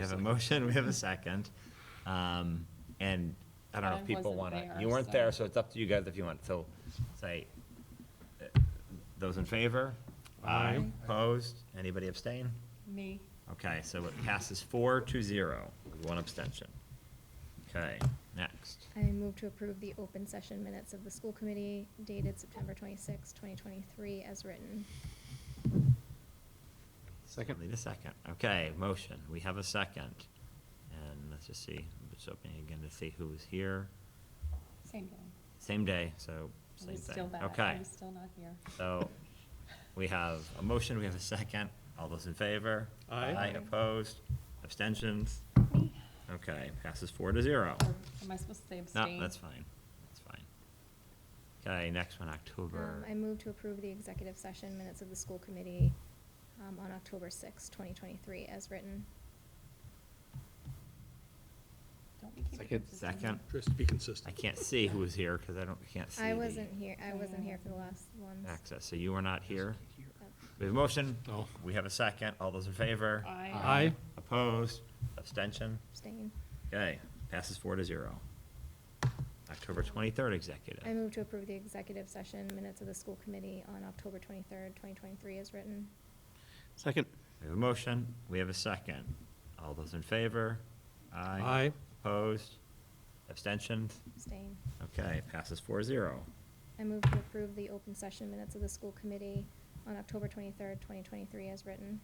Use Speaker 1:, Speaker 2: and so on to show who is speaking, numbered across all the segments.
Speaker 1: have a motion, we have a second. Um, And I don't know
Speaker 2: I
Speaker 1: if people
Speaker 2: wasn't
Speaker 1: want to,
Speaker 2: there,
Speaker 1: you weren't
Speaker 2: so-
Speaker 1: there, so it's up to you guys if you want. So say, uh, those in favor?
Speaker 3: Aye.
Speaker 1: Opposed? Anybody abstain?
Speaker 2: Me.
Speaker 1: Okay, so it passes four to zero with one abstention. Okay, next.
Speaker 4: I move to approve the open session minutes of the school committee dated September 26, 2023, as written.
Speaker 3: Second.
Speaker 1: Need a second. Okay, motion. We have a second. And let's just see, I'm just opening again to see who was here.
Speaker 2: Same thing.
Speaker 1: Same day, so
Speaker 2: It
Speaker 1: same
Speaker 2: was
Speaker 1: thing.
Speaker 2: still that.
Speaker 1: Okay.
Speaker 2: I'm still not here.
Speaker 1: So we have a motion, we have a second. All those in favor?
Speaker 3: Aye.
Speaker 1: Aye, opposed, abstentions?
Speaker 2: Me.
Speaker 1: Okay, passes four to zero.
Speaker 2: Or Am I supposed to say abstain?
Speaker 1: No, that's fine, that's fine. Okay, next one, October.
Speaker 4: Um, I move to approve the executive session minutes of the school committee um, on October 6, 2023, as written.
Speaker 2: Don't we keep it
Speaker 3: Second.
Speaker 2: consistent?
Speaker 1: Second.
Speaker 5: Just to be consistent.
Speaker 1: I can't see who was here because I don't, can't see.
Speaker 4: I
Speaker 1: the
Speaker 4: wasn't here, I wasn't here for the last one.
Speaker 1: Access, so you were not here.
Speaker 4: Oh.
Speaker 1: We have a motion,
Speaker 5: No.
Speaker 1: we have a second. All those in favor?
Speaker 2: Aye.
Speaker 3: Aye.
Speaker 1: Opposed, abstention?
Speaker 4: Abstain.
Speaker 1: Okay, passes four to zero. October twenty-third executive.
Speaker 4: I move to approve the executive session minutes of the school committee on October 23rd, 2023, as written.
Speaker 3: Second.
Speaker 1: We have a motion, we have a second. All those in favor?
Speaker 3: Aye.
Speaker 1: Opposed? Abstentions?
Speaker 4: Abstain.
Speaker 1: Okay, passes four zero.
Speaker 4: I move to approve the open session minutes of the school committee on October 23rd, 2023, as written.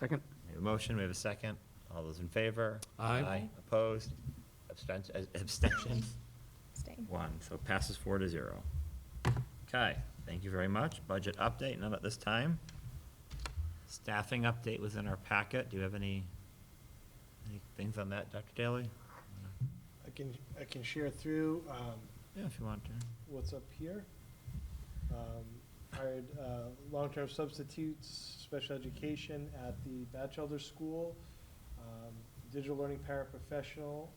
Speaker 3: Second.
Speaker 1: We have a motion, we have a second. All those in favor?
Speaker 3: Aye.
Speaker 1: Opposed? Abstention, abstentions?
Speaker 4: Abstain.
Speaker 1: One, so passes four to zero. Okay, thank you very much. Budget update, none at this time. Staffing update was in our packet. Do you have any, any things on that, Dr. Daly?
Speaker 6: I can, I can share through um,
Speaker 1: Yeah, if you want to.
Speaker 6: what's up here. Um, Hired uh, long-term substitutes, special education at the Batchelder School, um, digital learning paraprofessional,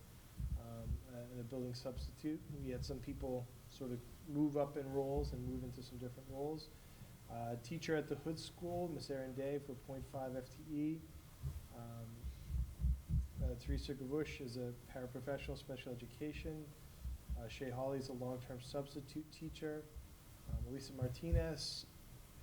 Speaker 6: um, and a building substitute. We had some people sort of move up in roles and move into some different roles. Uh, Teacher at the Hood School, Miss Erin Day for .5 FTE. E. Um, uh, Teresa Gavush is a paraprofessional, special education. Uh, Shay Hawley is a long-term substitute teacher. Um, Elisa Martinez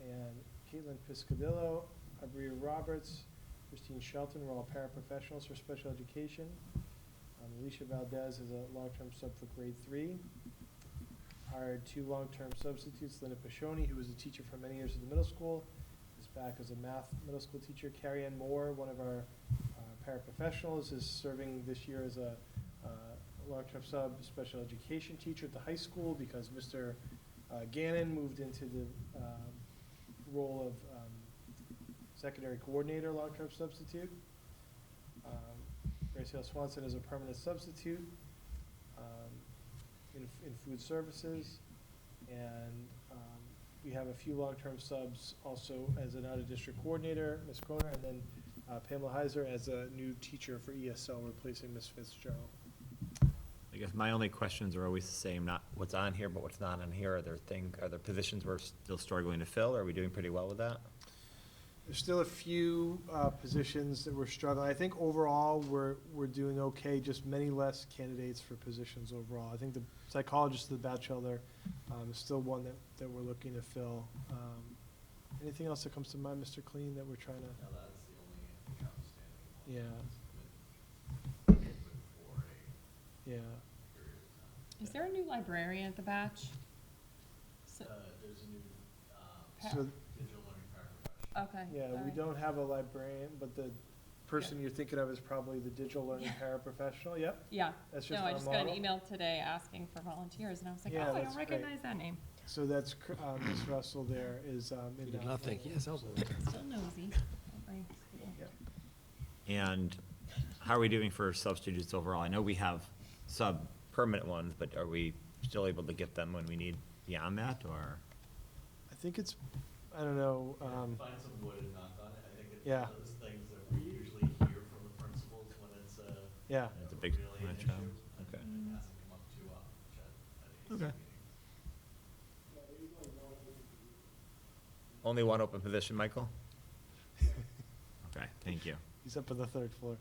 Speaker 6: and Caitlin Piscadillo, Abria Roberts, Christine Shelton, we're all paraprofessionals for special education. Um, Alicia Valdez is a long-term sub for grade three. Hired two long-term substitutes, Linda Pashoni, who was a teacher for many years at the middle school, is back as a math middle school teacher. Carrie Ann Moore, one of our uh, paraprofessionals, is serving this year as a uh, long-term sub special education teacher at the high school because Mr. uh, Gannon moved into the um, role of um, secondary coordinator, long-term substitute. Um, Graciela Swanson is a permanent substitute um, in in food services. And um, we have a few long-term subs also as an out-of-district coordinator, Ms. Croner, and then uh, Pamela Heiser as a new teacher for ESL, replacing Ms. Fitzgerald.
Speaker 1: I guess my only questions are always the same, not what's on here, but what's not on here. Are there things, are there positions we're still struggling to fill? Are we doing pretty well with that?
Speaker 6: There's still a few uh, positions that we're struggling. I think overall, we're, we're doing okay, just many less candidates for positions overall. I think the psychologist of the bachelor um, is still one that, that we're looking to fill. Um, Anything else that comes to mind, Mr. Clean, that we're trying to?
Speaker 7: Now, that's the only outstanding one.
Speaker 6: Yeah.
Speaker 7: But For a
Speaker 6: Yeah,
Speaker 7: period of time.
Speaker 2: Is there a new librarian at the batch? So-
Speaker 7: Uh, there's a new, um,
Speaker 2: Pa-
Speaker 6: so,
Speaker 7: digital learning paraprofessional.
Speaker 2: Okay.
Speaker 6: yeah,
Speaker 2: all
Speaker 6: we
Speaker 2: right.
Speaker 6: don't have a librarian, but the person you're thinking of is probably the digital learning paraprofessional, yep.
Speaker 2: Yeah.
Speaker 6: That's
Speaker 2: No,
Speaker 6: just
Speaker 2: I
Speaker 6: our
Speaker 2: just got an
Speaker 6: model.
Speaker 2: email today asking for volunteers and I was like,
Speaker 6: Yeah,
Speaker 2: oh, I
Speaker 6: that's
Speaker 2: don't
Speaker 6: great.
Speaker 2: recognize that name.
Speaker 6: So that's, cr- uh, Ms. Russell there is um, in.
Speaker 5: You did
Speaker 6: that
Speaker 5: not think,
Speaker 6: role.
Speaker 5: yes, that was a little.
Speaker 2: Still nosy. Don't worry.
Speaker 6: Yeah.
Speaker 1: And how are we doing for substitutes overall? I know we have sub-permanent ones, but are we still able to get them when we need beyond that, or?
Speaker 6: I think it's, I don't know, um,
Speaker 7: Find some wood and knock on it. I think it's
Speaker 6: Yeah.
Speaker 7: one of those things that we usually hear from the principals when it's uh, a.
Speaker 6: Yeah.
Speaker 7: you
Speaker 1: It's a
Speaker 7: know,
Speaker 1: big
Speaker 7: really an
Speaker 1: punch out.
Speaker 7: issue,
Speaker 1: Okay.
Speaker 7: And it hasn't come up too often, which I, I
Speaker 1: Okay.
Speaker 7: think meetings.
Speaker 1: Only one open position, Michael? Okay, thank you.
Speaker 6: he's up on the third floor.